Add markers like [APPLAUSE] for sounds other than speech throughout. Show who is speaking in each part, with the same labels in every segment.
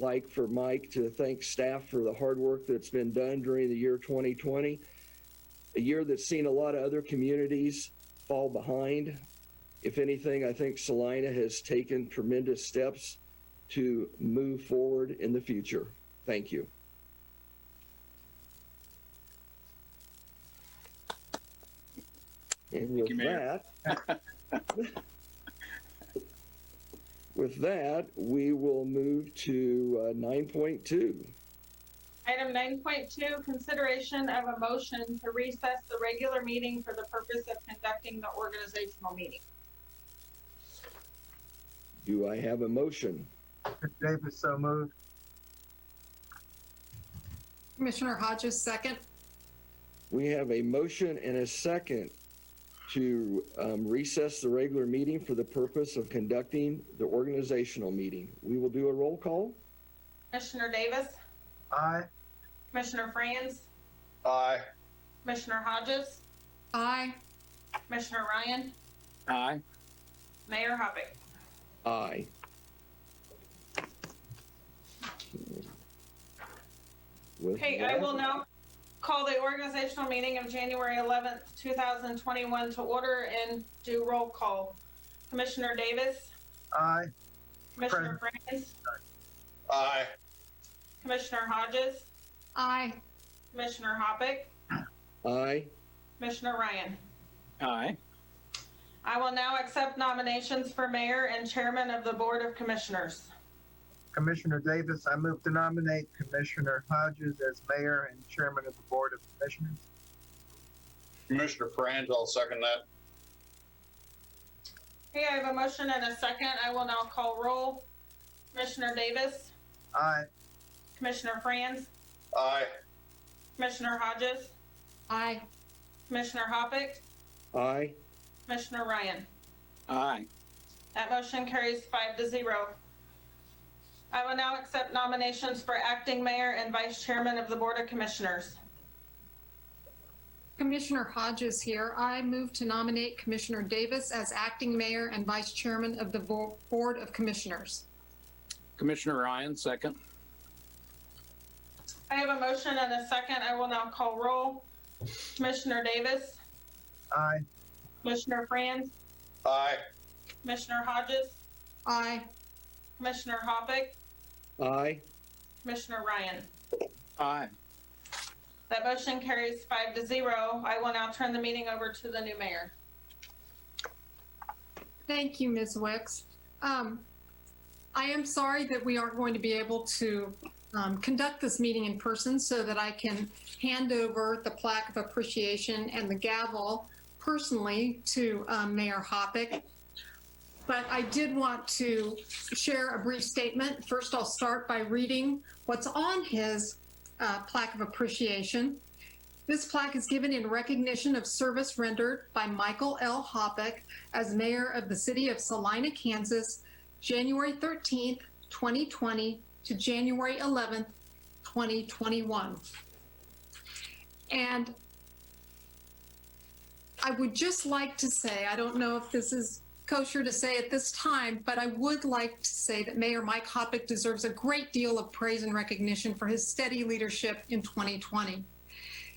Speaker 1: like for Mike to thank staff for the hard work that's been done during the year 2020, a year that's seen a lot of other communities fall behind. If anything, I think Salina has taken tremendous steps to move forward in the future. Thank you. And with
Speaker 2: you, Mayor.
Speaker 1: that,
Speaker 2: [LAUGHS]
Speaker 1: with that, we will move to uh, 9.2.
Speaker 3: Item nine point two, consideration of a motion to recess the regular meeting for the purpose of conducting the organizational meeting.
Speaker 1: Do I have a motion?
Speaker 4: Davis, so moved.
Speaker 5: Commissioner Hodges, second.
Speaker 1: We have a motion and a second to um, recess the regular meeting for the purpose of conducting the organizational meeting. We will do a roll call.
Speaker 3: Commissioner Davis,
Speaker 4: Aye.
Speaker 3: Commissioner Franz,
Speaker 4: Aye.
Speaker 3: Commissioner Hodges,
Speaker 5: Aye.
Speaker 3: Commissioner Ryan,
Speaker 2: Aye.
Speaker 3: Mayor Hoppick.
Speaker 1: Aye. With
Speaker 3: Okay, I will
Speaker 1: that-
Speaker 3: now call the organizational meeting of January eleventh, two thousand twenty-one to order and do roll call. Commissioner Davis,
Speaker 4: Aye.
Speaker 3: Commissioner Franz,
Speaker 4: Aye.
Speaker 3: Commissioner Hodges,
Speaker 5: Aye.
Speaker 3: Commissioner Hoppick,
Speaker 1: Aye.
Speaker 3: Commissioner Ryan.
Speaker 2: Aye.
Speaker 3: I will now accept nominations for mayor and chairman of the Board of Commissioners.
Speaker 4: Commissioner Davis, I move to nominate Commissioner Hodges as mayor and chairman of the Board of Commissioners.
Speaker 6: Commissioner Franz, I'll second that.
Speaker 3: Okay, I have a motion and a second. I will now call roll. Commissioner Davis,
Speaker 4: Aye.
Speaker 3: Commissioner Franz,
Speaker 6: Aye.
Speaker 3: Commissioner Hodges,
Speaker 5: Aye.
Speaker 3: Commissioner Hoppick,
Speaker 1: Aye.
Speaker 3: Commissioner Ryan.
Speaker 2: Aye.
Speaker 3: That motion carries five to zero. I will now accept nominations for acting mayor and vice chairman of the Board of Commissioners.
Speaker 5: Commissioner Hodges here. I move to nominate Commissioner Davis as acting mayor and vice chairman of the Bo- Board of Commissioners.
Speaker 2: Commissioner Ryan, second.
Speaker 3: I have a motion and a second. I will now call roll. Commissioner Davis,
Speaker 4: Aye.
Speaker 3: Commissioner Franz,
Speaker 6: Aye.
Speaker 3: Commissioner Hodges,
Speaker 5: Aye.
Speaker 3: Commissioner Hoppick,
Speaker 1: Aye.
Speaker 3: Commissioner Ryan.
Speaker 2: Aye.
Speaker 3: That motion carries five to zero. I will now turn the meeting over to the new mayor.
Speaker 5: Thank you, Ms. Wicks. Um, I am sorry that we aren't going to be able to um, conduct this meeting in person so that I can hand over the plaque of appreciation and the gavel personally to um, Mayor Hoppick. But I did want to share a brief statement. First, I'll start by reading what's on his uh, plaque of appreciation. This plaque is given in recognition of service rendered by Michael L. Hoppick as mayor of the city of Salina, Kansas, January 13th, 2020 to January 11th, 2021. And I would just like to say, I don't know if this is kosher to say at this time, but I would like to say that Mayor Mike Hoppick deserves a great deal of praise and recognition for his steady leadership in 2020.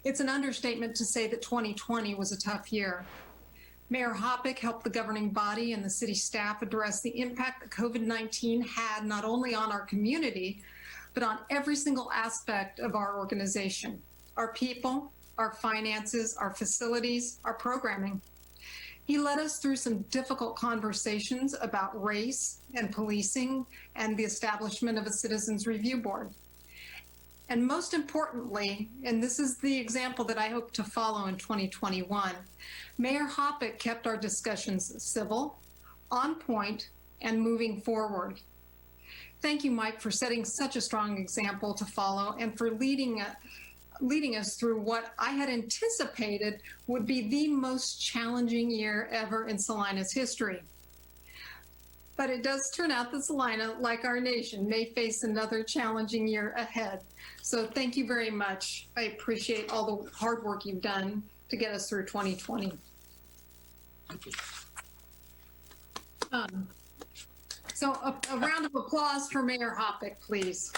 Speaker 5: It's an understatement to say that 2020 was a tough year. Mayor Hoppick helped the governing body and the city staff address the impact that COVID 19 had not only on our community, but on every single aspect of our organization our people, our finances, our facilities, our programming. He led us through some difficult conversations about race and policing and the establishment of a citizens review board. And most importantly, and this is the example that I hope to follow in 2021, Mayor Hoppick kept our discussions civil, on point, and moving forward. Thank you, Mike, for setting such a strong example to follow and for leading, uh, leading us through what I had anticipated would be the most challenging year ever in Salina's history. But it does turn out that Salina, like our nation, may face another challenging year ahead. So thank you very much. I appreciate all the hard work you've done to get us through 2020. Um, So a, a round of applause for Mayor Hoppick, please.